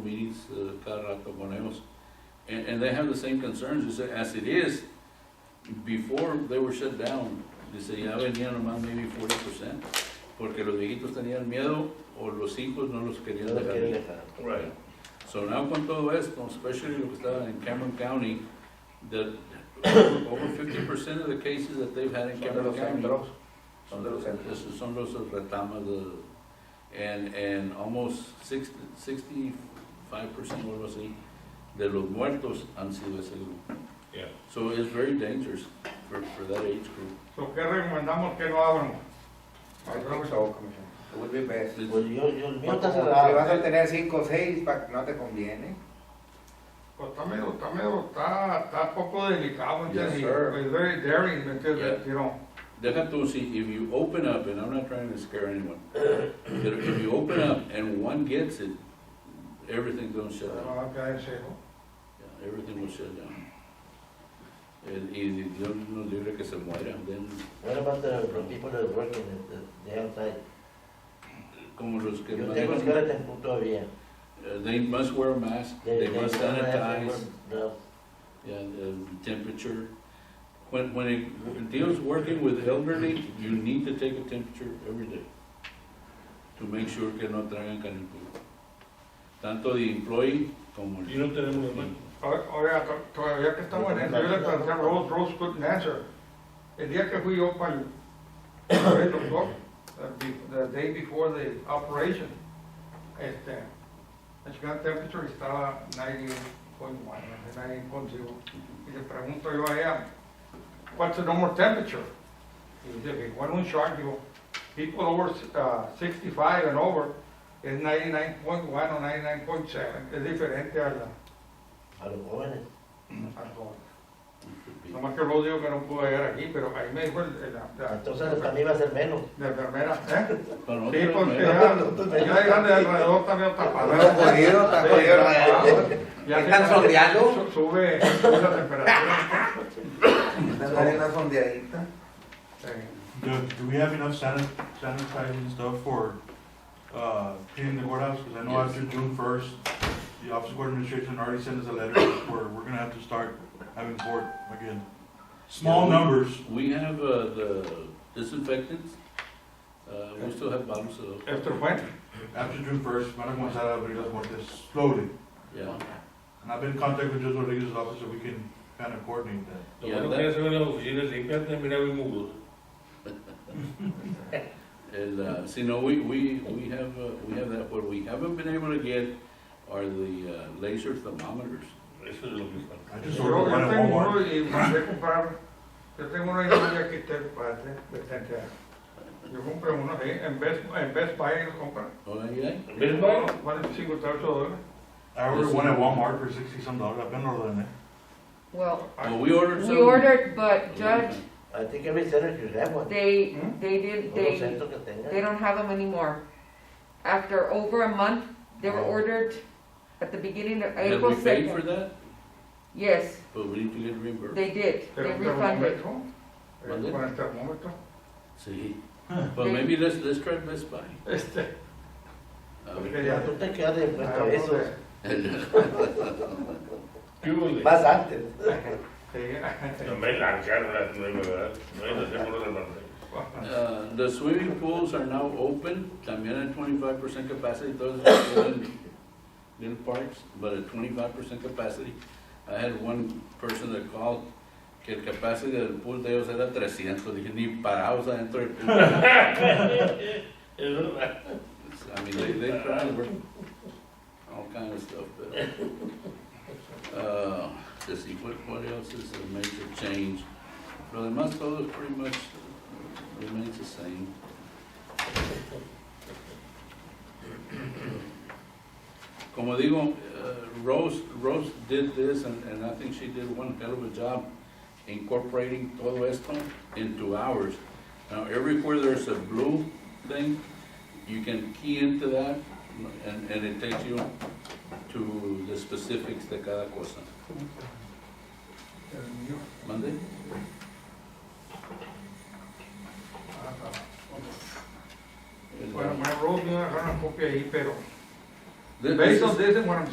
Ortiz, uh, Carra, Caponeos, and, and they have the same concerns, they say, as it is, before they were shut down, dice, ya venían nomás maybe forty percent, porque los viejitos tenían miedo, o los hijos no los querían No dejar quieren ir. dejar. Right. So now con todo esto, especially lo que está en Cameron County, the, over fifty percent of the cases that they've had in Son de Cameron los County. centros, son de los centros. Esos son los retamas de, and, and almost sixty, sixty-five percent o algo así, de los muertos han sido ese grupo. Yeah. So it's very dangerous for, for that age group. So, ¿Qué recomendamos que no hagan? I think so, Commissioner. It would be best. It's- Pues yo, yo, el mío Porque está como si vas a cerrado. tener cinco o seis, pa- no te conviene. Pues está medio, está medio, está, está poco delicado, ¿me entiendes? Yes, sir. It's very daring, ¿me entiendes? You know, Deja tú, si, if you open up, and I'm not trying to scare anyone, but if you open up and one gets it, everything's gonna shut down. no va a caer ciego. Yeah, Everything will shut down. And, y Dios nos libre que se muera, then What about the the people that are working at the, the outside? como los que Yo tengo manejan- escuela en punto todavía. Uh, They must wear a mask, they must sanitize, yeah, the temperature. When, when it when deals working with elderly, you need to take a temperature every day to make sure que no traigan canicula. Tanto the employee como el. Y no tenemos la mano. O- Oiga, to- todavía que estamos en eso, yo le planteé a Rose, Rose couldn't answer. El día que fui yo para el, para el doctor, the be- the day before the operation, este, el señor temperature estaba 90.1, 90.0. Y le pregunto yo a ella, what's the normal temperature? Y dice, bueno, un shock, digo, people over uh, 65 and over es 99.1 o 99.7, es diferente a la A los jóvenes. Arjona. Nomás que luego digo que no pude llegar aquí, pero ahí me dijo el, el- la, Ah. la- Entonces también va a ser menos. la enfermera, ¿eh? Para Sí, nosotros, porque ¿no? ya, ya llegan de alrededor también tapado. Está jodido, está jodido. Ya ¿Están se- sondeando? su- Sube, sube la temperatura. Están saliendo a sondeadita. Eh, Do, do we have enough sanit- sanitizing stuff for, uh, cleaning the courthouse? Cause I know Yes. after June first, the office of court administration already sent us a letter where we're gonna have to start having court again. Small Yeah, we- numbers, We have, uh, the disinfectants, uh, we still have bottles of, Eh, those. Esto fue, after June first, Madam Gonzalez will bring us more this slowly. yeah. And I've been in contact with Judge Rodriguez's office so we can kind of coordinate that. Lo bueno que ya se ven las oficinas limpias, te mira bien mudo. And, uh, see, no, we, we, we have, uh, we have that, what we haven't been able to get are the uh, laser thermometers. Eso es lo que está. I just yo, ordered yo one at tengo Walmart. uno y mandé comprar, yo tengo uno ahí que te parte, bastante. Yo compré uno ahí, en Best, en Best Buy lo compré. Oh, yeah? ¿Ves, Mike? Vale 58 dólares. I ordered one at Walmart for sixty some dollars. I've been ordering it. Well, Well, we ordered some. we ordered, but Okay. Judge, I think every center should have one. they, Hmm? they did, Todos los they, centros que tengan. they don't have them anymore. After over a month, they were Oh. ordered at the beginning of Have April we paid for second. that? Yes, But we need to get reimbursed. they did, Pero they un refunded. termómetro, ¿Vale? eh, con el termómetro. See, but maybe let's, let's try Best Buy. Este, A ver. porque ya Tú te quedas Ah, de frente a Hablamos eso. de- uh, ¿Qué hubo de- Más antes. sí, No me lanzaron las nueve, ¿verdad? No es de seguro de Monterrey. Uh, the swimming pools are now open, también at twenty-five percent capacity, those are still in little parks, but at twenty-five percent capacity. I had one person that called, que el capacity del pool de ellos era trescientos, dije, ni parados adentro del pool. Es verdad. I mean, they, they try and work all kind of stuff, but, uh, let's see, what, what else is a major change? Lo demás todo pretty much remains the same. Como digo, uh, Rose, Rose did this, and, and I think she did one hell of a job incorporating todo esto into ours. Now, everywhere there's a blue thing, you can key into that, and, and it takes you to the specifics de cada cosa. el mío. ¿Mande? Bueno, me robó una copia ahí, pero. Th- this Based is- on this, and what I'm